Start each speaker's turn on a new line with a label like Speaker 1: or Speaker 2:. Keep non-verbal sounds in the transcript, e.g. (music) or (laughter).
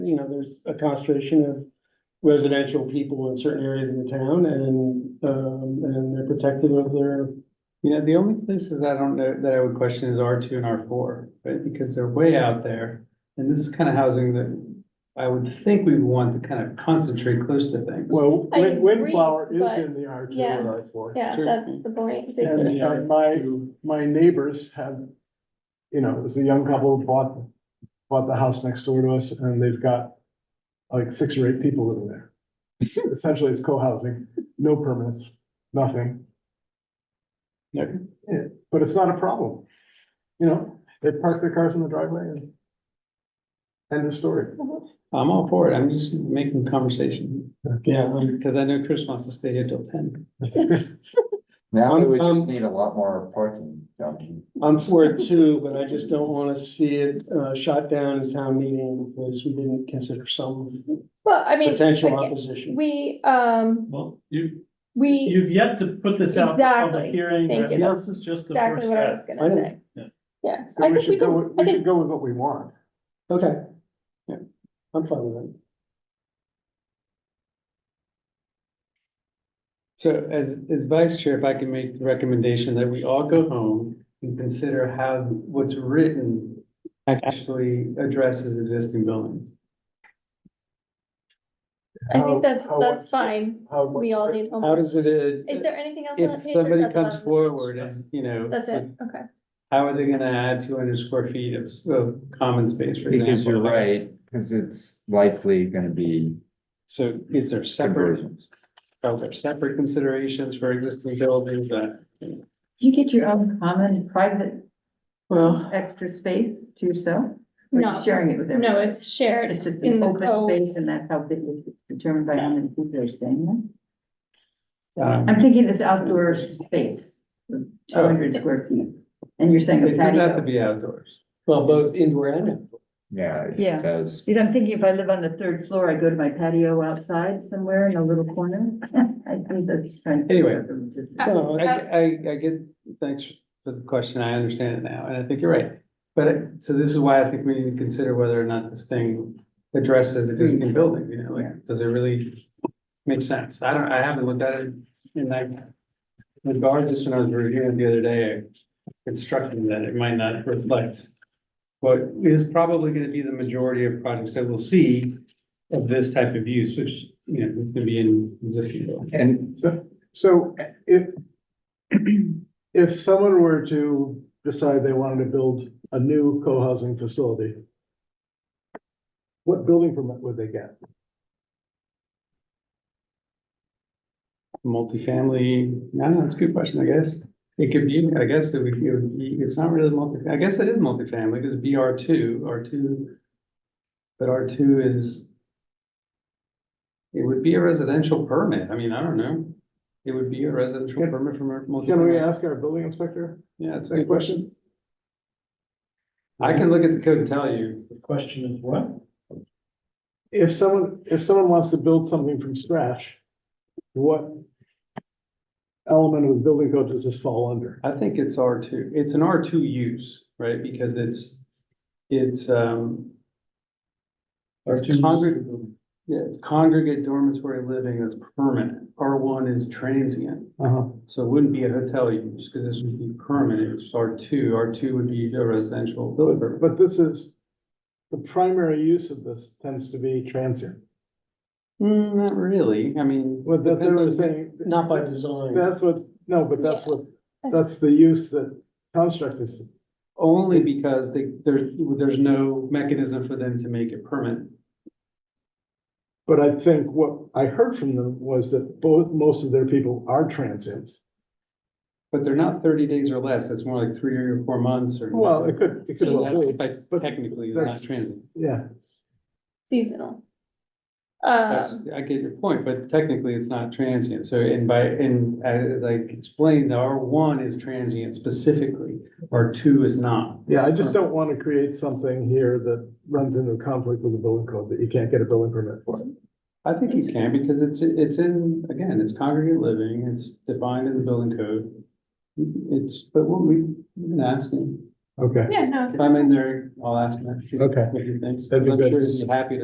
Speaker 1: you know, there's a concentration of residential people in certain areas in the town and, um, and they're protective of their,
Speaker 2: You know, the only places I don't know that I would question is R two and R four, right? Because they're way out there. And this is kind of housing that I would think we would want to kind of concentrate close to things.
Speaker 3: Well,
Speaker 4: I
Speaker 3: wind,
Speaker 4: agree,
Speaker 3: windflower is
Speaker 4: but-
Speaker 3: in the R two
Speaker 4: yeah.
Speaker 3: and R four.
Speaker 4: Yeah,
Speaker 2: Sure.
Speaker 4: that's the point. They-
Speaker 3: And
Speaker 1: Yeah.
Speaker 3: and my, my neighbors have, you know, it was a young couple who bought, bought the house next door to us and they've got like six or eight people living
Speaker 4: (laughs)
Speaker 3: there. Essentially, it's co-housing, no permits, nothing. Yeah, yeah, but it's not a problem. You know, they park their cars in the driveway and end of story.
Speaker 2: I'm all for it. I'm just making conversation
Speaker 4: Uh-huh.
Speaker 3: (laughs)
Speaker 1: yeah, um,
Speaker 2: because I know Chris wants to stay here till ten.
Speaker 5: Now we
Speaker 1: Um,
Speaker 5: would
Speaker 1: um,
Speaker 5: just need a lot more parking, don't you?
Speaker 1: I'm for it too, but I just don't wanna see it, uh, shot down in town meeting because we didn't consider some
Speaker 4: Well, I mean,
Speaker 1: potential
Speaker 4: again,
Speaker 1: opposition.
Speaker 4: we, um,
Speaker 6: Well, you,
Speaker 4: we,
Speaker 6: you've yet to put this out for
Speaker 4: Exactly.
Speaker 6: public hearing,
Speaker 4: Thank you.
Speaker 6: this is just the first
Speaker 4: exactly what I was
Speaker 6: step.
Speaker 1: I
Speaker 4: gonna
Speaker 1: don't-
Speaker 4: say.
Speaker 6: yeah.
Speaker 4: Yeah,
Speaker 3: So
Speaker 4: I
Speaker 3: we
Speaker 4: think we
Speaker 3: should go, with-
Speaker 4: can, I
Speaker 3: we
Speaker 4: think,
Speaker 3: should go with what we want.
Speaker 1: Okay. Yeah, I'm fine with it.
Speaker 2: So as, as vice chair, if I can make the recommendation that we all go home and consider how what's written actually addresses existing buildings.
Speaker 4: I think that's,
Speaker 3: How- how
Speaker 4: that's
Speaker 3: much-
Speaker 4: fine.
Speaker 3: how much-
Speaker 4: We all need.
Speaker 1: How does it, uh,
Speaker 4: Is there anything else on that page?
Speaker 2: If
Speaker 4: or is
Speaker 2: somebody
Speaker 4: that the
Speaker 2: comes
Speaker 4: last one?
Speaker 2: forward and, you know.
Speaker 4: That's it, okay.
Speaker 2: How are they gonna add two hundred square feet of, of common space, for example?
Speaker 5: Because you're right, because it's likely gonna be
Speaker 2: So is there separate,
Speaker 5: conversions.
Speaker 2: are there separate considerations for existing buildings that?
Speaker 7: You get your own common private
Speaker 2: Well.
Speaker 7: extra space to yourself? Or you
Speaker 4: No,
Speaker 7: Sharing it with everyone?
Speaker 4: no, it's shared
Speaker 7: It's just
Speaker 4: in
Speaker 7: an
Speaker 4: the
Speaker 7: open
Speaker 4: code.
Speaker 7: space and that's how big it's determined by how many people are staying
Speaker 2: Um,
Speaker 7: there? I'm thinking it's outdoor space, two hundred square feet, and you're saying
Speaker 2: It
Speaker 7: a
Speaker 2: does have to
Speaker 7: patio.
Speaker 2: be outdoors.
Speaker 1: well, both indoor and outdoor.
Speaker 5: Yeah,
Speaker 7: Yeah.
Speaker 5: it says,
Speaker 7: Because I'm thinking if I live on the third floor, I go to my patio outside somewhere in a little corner. (laughs) I think that's trying. to-
Speaker 2: Anyway.
Speaker 7: Just-
Speaker 4: Uh,
Speaker 2: No, I, I, I get, thanks for the question, I understand it now, and I think you're right. But, it- so this is why I think we need to consider whether or not this thing addresses existing buildings. you know, like, does it really make sense? I don't, I haven't looked at it in that regard, just when I was reviewing it the other day, it struck me that it might not reflect what is probably gonna be the majority of projects that we'll see of this type of use, which, you know, is gonna be in existing buildings.
Speaker 5: and
Speaker 3: So if, if someone were to decide they wanted to build a new co-housing facility, what building permit would they get?
Speaker 2: Multifamily, I don't know, it's a good question, I guess. It could be, I guess it would, it would be, it's not really multi, I guess it is multifamily, because BR two, R two. But R two is. It would be a residential permit, I mean, I don't know. It would be a residential permit from a
Speaker 3: Can we
Speaker 2: multifamily.
Speaker 3: ask our building inspector
Speaker 2: Yeah, it's a
Speaker 3: that
Speaker 2: good question.
Speaker 3: question?
Speaker 2: I can look at the code and tell you.
Speaker 6: The question is what?
Speaker 3: If someone, if someone wants to build something from scratch, what element of the building code does this fall under?
Speaker 2: I think it's R two, it's an R two use, right, because it's, it's, um. It's congregate, yeah, it's congregate dormitory living that's permanent, R one is transient,
Speaker 3: Uh-huh.
Speaker 2: so it wouldn't be a hotel use, because this would be permanent, R two, R two would be a residential building.
Speaker 3: But,
Speaker 2: permit.
Speaker 3: but this is, the primary use of this tends to be transient.
Speaker 2: Hmm, not really, I mean.
Speaker 3: What that they
Speaker 2: depends
Speaker 3: were
Speaker 2: on-
Speaker 3: saying.
Speaker 1: Not by design.
Speaker 3: That's what, no, but that's what, that's the use that construct is,
Speaker 2: Only because they, there, there's no mechanism for them to make it permanent.
Speaker 3: but I think what I heard from them was that both, most of their people are transients.
Speaker 2: But they're not thirty days or less, it's more like three or four months or.
Speaker 3: Well, it could, it could
Speaker 2: So
Speaker 3: well be,
Speaker 2: that's-
Speaker 3: but
Speaker 2: But technically, it's not
Speaker 3: that's-
Speaker 2: transient.
Speaker 3: yeah,
Speaker 4: Seasonal.
Speaker 3: uh,
Speaker 2: That's,
Speaker 4: Um,
Speaker 2: I get your point, but technically, it's not transient. So and by, and as I explained, R one is transient specifically, R two is not.
Speaker 3: yeah, I just don't want to create something here that runs into conflict with the building code that you can't get a building permit for.
Speaker 2: I think you can, because it's, it's in, again, it's congregate living, it's defined in the building code. It's, but what we, we can ask him.
Speaker 3: Okay.
Speaker 4: yeah, no, it's.
Speaker 2: If I'm in there, I'll ask him.
Speaker 3: Okay.
Speaker 2: What he thinks.
Speaker 3: That'd be
Speaker 2: I'm sure
Speaker 3: good.
Speaker 2: he'd be Happy to